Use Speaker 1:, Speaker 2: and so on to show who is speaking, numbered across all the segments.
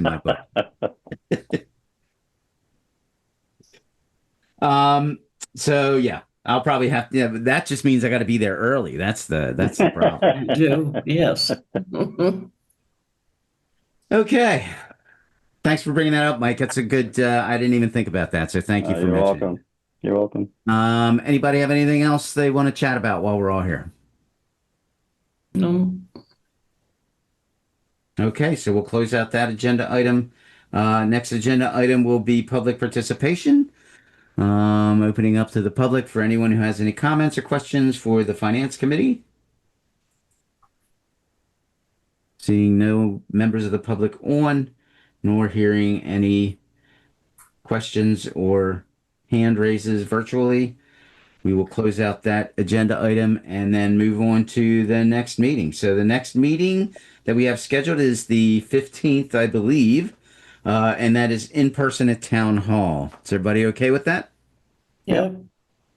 Speaker 1: in my book. um. So yeah, I'll probably have to. Yeah, but that just means I got to be there early. That's the that's the problem.
Speaker 2: You do, yes. Mm-hmm.
Speaker 1: okay. Thanks for bringing that up, Mike. That's a good. Uh, I didn't even think about that. So thank you
Speaker 3: Uh,
Speaker 1: for
Speaker 3: You're
Speaker 1: mentioning. it.
Speaker 3: welcome. You're welcome.
Speaker 1: Um. Anybody have anything else they want to chat about while we're all here?
Speaker 2: No,
Speaker 1: Okay, so we'll close out that agenda item. Uh, next agenda item will be public participation. Um, opening up to the public for anyone who has any comments or questions for the finance committee. Seeing no members of the public on, nor hearing any questions or hand raises virtually. We will close out that agenda item and then move on to the next meeting. So the next meeting that we have scheduled is the 15th, I believe. Uh, and that is in person at Town Hall. Is everybody okay with that?
Speaker 2: yeah,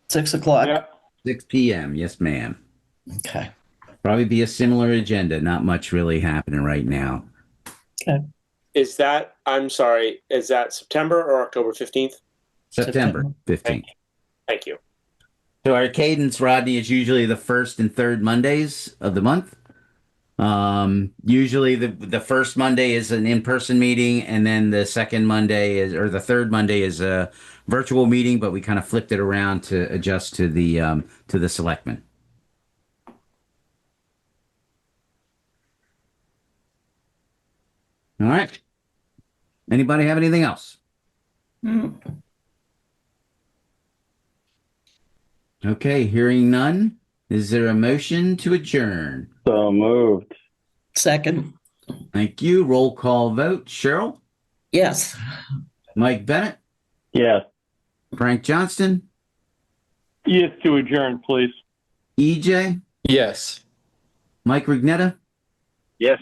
Speaker 2: six o'clock.
Speaker 1: 6 p.m. Yes, ma'am.
Speaker 2: Okay,
Speaker 1: Probably be a similar agenda. Not much really happening right now.
Speaker 4: Is that, I'm sorry, is that September or October 15th?
Speaker 1: September
Speaker 2: September.
Speaker 1: 15th.
Speaker 4: Thank you.
Speaker 1: So our cadence, Rodney, is usually the first and third Mondays of the month. Um, usually the the first Monday is an in-person meeting, and then the second Monday is or the third Monday is a virtual meeting, but we kind of flipped it around to adjust to the um to the selectmen. All right. Anybody have anything else?
Speaker 2: Mm,
Speaker 1: Okay, hearing none. Is there a motion to adjourn?
Speaker 3: So moved.
Speaker 2: second,
Speaker 1: Thank you. Roll call vote. Cheryl,
Speaker 2: yes.
Speaker 1: Mike Bennett,
Speaker 3: Yes.
Speaker 1: Frank Johnston,
Speaker 3: Yes, to adjourn, please.
Speaker 1: EJ,
Speaker 5: Yes.
Speaker 1: E Mike Rignetta,
Speaker 3: Yes.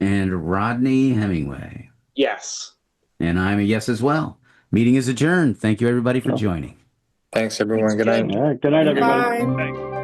Speaker 1: and Rodney Hemingway.
Speaker 4: Yes.
Speaker 1: And I'm a yes as well. Meeting is adjourned. Thank you, everybody, for joining.
Speaker 5: Thanks, everyone. Good night.
Speaker 3: All right. Good night, everybody.
Speaker 6: Bye.